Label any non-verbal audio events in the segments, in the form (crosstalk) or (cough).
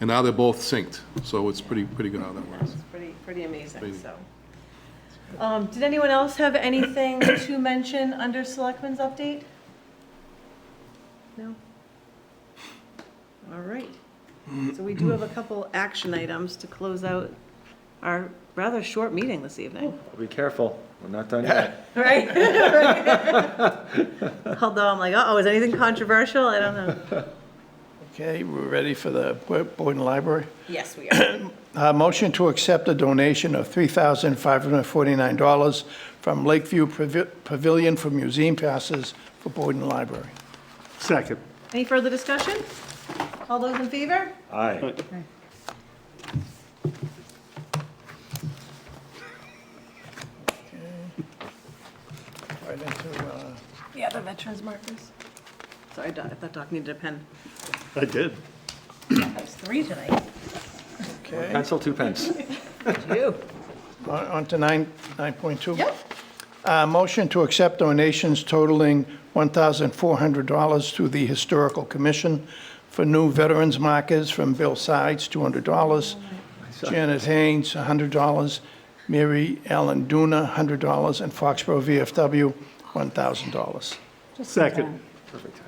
And now they're both synced, so it's pretty, pretty good how that works. It's pretty, pretty amazing, Amazing. so. Um, Did anyone else have anything (coughs) to mention under Selectmen's update? No? All right. So we do have a couple action items to close out our rather short meeting this evening, Be careful, we're not done yet. Oh, (laughs) right? Although I'm like, uh-oh, is anything controversial? I don't know. Okay, we're ready for the Bo- Boyden Library. Yes, we are. Uh, Motion to accept a donation of $3,549 from Lakeview Pavi- Pavilion for museum passes for Boyden Library. Second. Any further discussion? All those in favor? Aye. Right into, uh, Yeah, the veterans markers. Sorry, Doc, that doc needed a pen. I did. That's three tonight. Okay, Pencil, two pence. You. on Uh, on to nine 9.2. Yep. Uh, Motion to accept donations totaling $1,400 to the Historical Commission for new veterans markers from Bill Sides, $200, Janet Haynes, $100, Mary Ellen Duna, $100, and Foxborough VFW, $1,000. Second.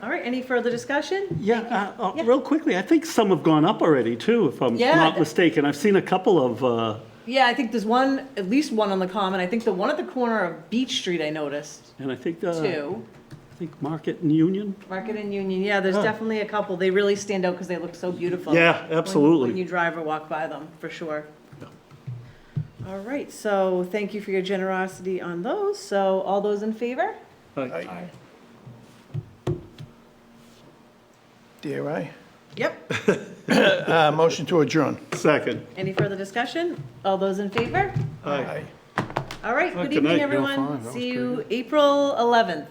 All right, any further discussion? Yeah, uh, uh, real quickly, I think some have gone up already too, if I'm Yeah. not mistaken. I've seen a couple of, uh, Yeah, I think there's one, at least one on the common. I think the one at the corner of Beach Street I noticed, and I think, uh, I too. think Market and Union. Market and Union, yeah, there's Huh. definitely a couple. They really stand out because they look so beautiful. Yeah, when- absolutely. When you drive or walk by them, for sure. All right, so thank you for your generosity on those. So all those in favor? Aye. Dare I? Yep. Uh, Motion to adjourn. Second. Any further discussion? All those in favor? Aye. All right, Well, good good night, fine. evening, you're That everyone. was See you April 11th.